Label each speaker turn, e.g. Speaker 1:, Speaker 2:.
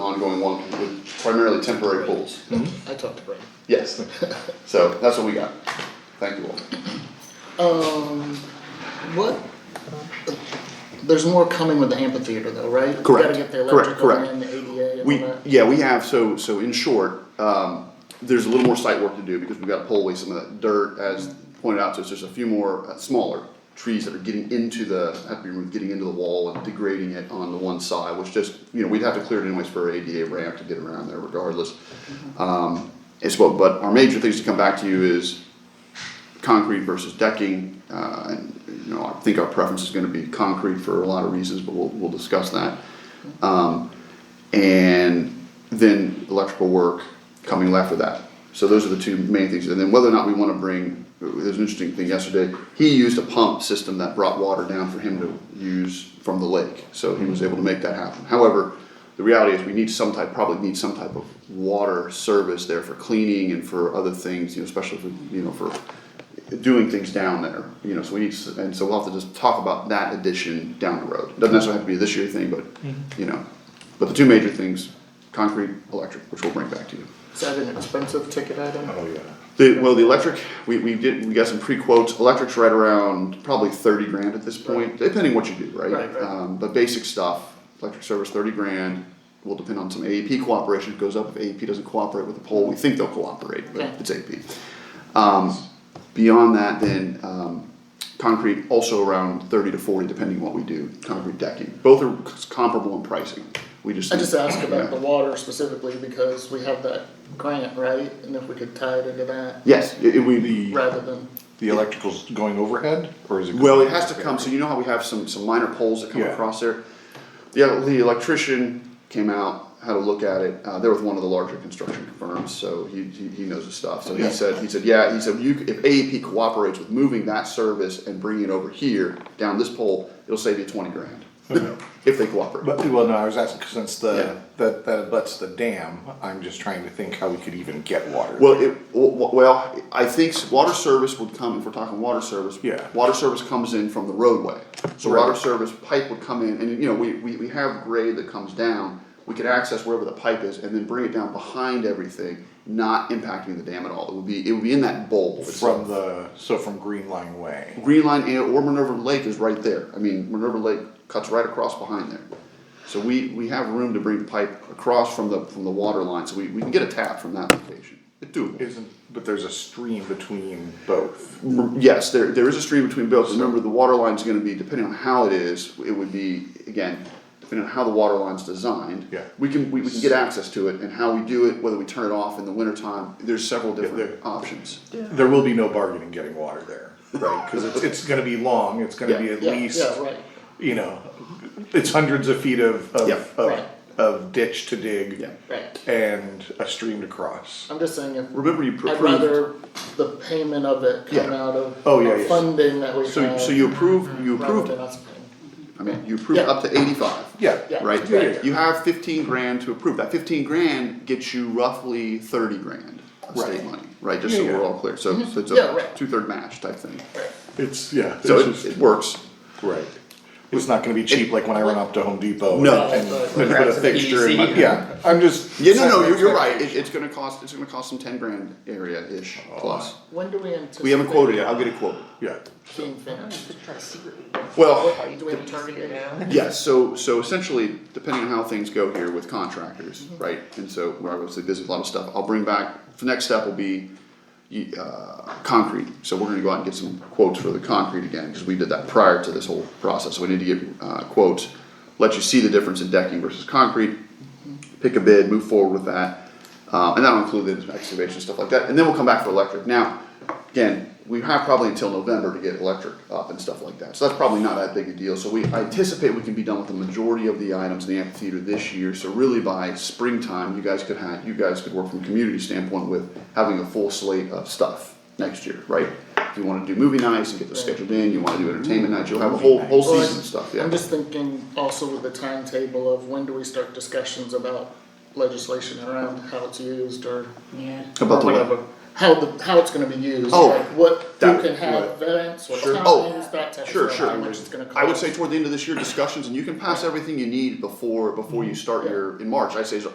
Speaker 1: going one with primarily temporary pools.
Speaker 2: I talked to Brad.
Speaker 1: Yes. So that's what we got. Thank you all.
Speaker 2: Um, what? There's more coming with the amphitheater though, right? You
Speaker 1: Correct.
Speaker 2: Gotta get the
Speaker 1: Correct,
Speaker 2: electrical
Speaker 1: correct.
Speaker 2: and the ADA and all
Speaker 1: We,
Speaker 2: that.
Speaker 1: yeah, we have, so, so in short, um, there's a little more site work to do because we've gotta pull away some of that dirt as pointed out, so it's just a few more uh, smaller trees that are getting into the, have to be removed, getting into the wall and degrading it on the one side, which just, you know, we'd have to clear it anyways for ADA ramp to get around there regardless. Um, it's what, but our major things to come back to you is concrete versus decking, uh, and, you know, I think our preference is gonna be concrete for a lot of reasons, but we'll, we'll discuss that. Um, and then electrical work coming after that. So those are the two main things, and then whether or not we wanna bring, there's an interesting thing yesterday, he used a pump system that brought water down for him to use from the lake, so he was able to make that happen. However, the reality is we need some type, probably need some type of water service there for cleaning and for other things, you know, especially for, you know, for doing things down there, you know, so we need, s- and so we'll have to just talk about that addition down the road. It Doesn't necessarily have to be this year thing, but, you know, but the two major things, concrete, electric, which we'll bring back to you.
Speaker 2: Is that an expensive ticket item?
Speaker 3: Oh, yeah.
Speaker 1: The, well, the electric, we, we did, we got some pre-quotes, electric's right around probably thirty grand at this point, depending what you do, right?
Speaker 2: Right, right.
Speaker 1: Um, but basic stuff, electric service thirty grand, will depend on some AEP cooperation, it goes up if AEP doesn't cooperate with the poll, we think they'll cooperate, but
Speaker 2: Okay.
Speaker 1: it's AEP. Um, beyond that, then, um, concrete also around thirty to forty, depending what we do, concrete decking, both are c- comparable in pricing, we just.
Speaker 2: I just asked
Speaker 1: Yeah.
Speaker 2: about the water specifically because we have that grant, right? And if we could tie it into that
Speaker 1: Yes, it, it, we,
Speaker 3: The,
Speaker 2: rather than,
Speaker 3: the electrical's going overhead, or is it?
Speaker 1: Well,
Speaker 3: going-
Speaker 1: it has to come, so you know how we have some, some minor poles that come
Speaker 3: Yeah.
Speaker 1: across there? The, the electrician came out, had a look at it, uh, they're with one of the larger construction firms, so he, he, he knows his stuff. So he
Speaker 3: Yeah.
Speaker 1: said, he said, yeah, he said, you, if AEP cooperates with moving that service and bringing it over here, down this pole, it'll save you twenty grand. If they cooperate.
Speaker 3: But, well, no, I was asking, 'cause since
Speaker 1: Yeah.
Speaker 3: the, that, that abuts the dam, I'm just trying to think how we could even get water.
Speaker 1: Well, it, w- w- well, I think s- water service would come, if we're talking water service.
Speaker 3: Yeah.
Speaker 1: Water service comes in from the roadway, so
Speaker 3: Right.
Speaker 1: water service pipe would come in, and you know, we, we, we have grade that comes down. We could access wherever the pipe is and then bring it down behind everything, not impacting the dam at all, it would be, it would be in that bowl. itself.
Speaker 3: From the, so from Green Line Way.
Speaker 1: Green Line and- or Minerva Lake is right there, I mean, Minerva Lake cuts right across behind there. So we, we have room to bring pipe across from the, from the water line, so we, we can get a tap from that location, it's doable.
Speaker 3: Isn't, but there's a stream between both.
Speaker 1: Yes, there, there is a stream between both, remember, the water line's gonna be, depending on how it is, it would be, again, depending on how the water line's designed.
Speaker 3: Yeah.
Speaker 1: We can, we, we can get access to it, and how we do it, whether we turn it off in the wintertime, there's several different
Speaker 3: there-
Speaker 1: options.
Speaker 3: There will be no bargaining getting water there, right? Cause it's, it's gonna be long, it's gonna be
Speaker 1: Yeah.
Speaker 3: at
Speaker 2: yeah,
Speaker 3: least,
Speaker 2: yeah, right.
Speaker 3: you know, it's hundreds of feet of,
Speaker 1: Yeah.
Speaker 3: of,
Speaker 2: Right.
Speaker 3: of, of ditch to dig.
Speaker 1: Yeah.
Speaker 2: Right.
Speaker 3: And a stream to cross.
Speaker 2: I'm just saying if,
Speaker 1: Remember you
Speaker 2: I'd
Speaker 1: approved,
Speaker 2: rather the payment of it come
Speaker 1: Yeah.
Speaker 2: out of
Speaker 3: Oh, yeah,
Speaker 2: the
Speaker 3: yeah.
Speaker 2: funding that we have.
Speaker 1: so, so you approved, you
Speaker 2: rather than
Speaker 1: approved,
Speaker 2: us paying.
Speaker 1: I mean, you approved
Speaker 2: Yeah.
Speaker 1: up to eighty-five.
Speaker 3: Yeah.
Speaker 2: Yeah.
Speaker 1: Right,
Speaker 3: Yeah, yeah, yeah.
Speaker 1: you have fifteen grand to approve, that fifteen grand gets you roughly thirty grand of state
Speaker 3: Right.
Speaker 1: money, right, just
Speaker 3: Yeah,
Speaker 1: so we're
Speaker 3: yeah.
Speaker 1: all clear, so, so it's
Speaker 2: Mm-hmm. Yeah,
Speaker 1: a
Speaker 2: right.
Speaker 1: two-third match type thing.
Speaker 2: Right.
Speaker 3: It's, yeah.
Speaker 1: So
Speaker 3: it's
Speaker 1: it,
Speaker 3: just-
Speaker 1: it works.
Speaker 3: Right. It's not gonna be cheap like when I run up to Home Depot.
Speaker 1: No.
Speaker 3: and-
Speaker 2: Right,
Speaker 3: And put a
Speaker 4: Perhaps an
Speaker 3: fixture in my,
Speaker 4: easy-
Speaker 3: yeah, I'm just.
Speaker 1: Yeah, no, no, you're, you're right. It, it's gonna cost, it's gonna cost some ten grand area ish
Speaker 3: Oh,
Speaker 1: plus.
Speaker 2: When do we anticipate?
Speaker 1: We haven't quoted yet. I'll get it quoted.
Speaker 3: Yeah,
Speaker 2: Being finished.
Speaker 1: Well,
Speaker 2: Do we have a target date?
Speaker 1: yes. So, so essentially, depending on how things go here with contractors,
Speaker 4: Mm-hmm.
Speaker 1: right? And so we're obviously busy with a lot of stuff. I'll bring back. The next step will be you- uh, concrete. So we're gonna go out and get some quotes for the concrete again because we did that prior to this whole process. So we need to get uh, quotes. Let you see the difference in decking versus concrete. Pick a bid, move forward with that, uh, and that'll include the excavation stuff like that. And then we'll come back for electric. Now, again, we have probably until November to get electric up and stuff like that. So that's probably not that big a deal. So we I anticipate we can be done with the majority of the items in the amphitheater this year. So really by springtime, you guys could have you guys could work from a community standpoint with having a full slate of stuff next year, right? If you want to do movie nights and get those scheduled in, you want to do entertainment nights, you'll have a whole whole
Speaker 2: Well,
Speaker 1: season of stuff. Yeah.
Speaker 2: I'm just thinking also with the timetable of when do we start discussions about legislation around how it's used or
Speaker 4: Yeah.
Speaker 1: About the
Speaker 2: or
Speaker 1: what?
Speaker 2: whatever. How the, how it's gonna be used,
Speaker 1: Oh,
Speaker 2: like what, who
Speaker 1: that-
Speaker 2: can have events, what
Speaker 1: Sure.
Speaker 2: time
Speaker 1: Oh,
Speaker 2: use, that type of
Speaker 1: Sure,
Speaker 2: stuff,
Speaker 1: sure.
Speaker 2: how much it's gonna cost.
Speaker 1: I would say toward the end of this year, discussions, and you can pass everything you need before, before you start your, in March, I say as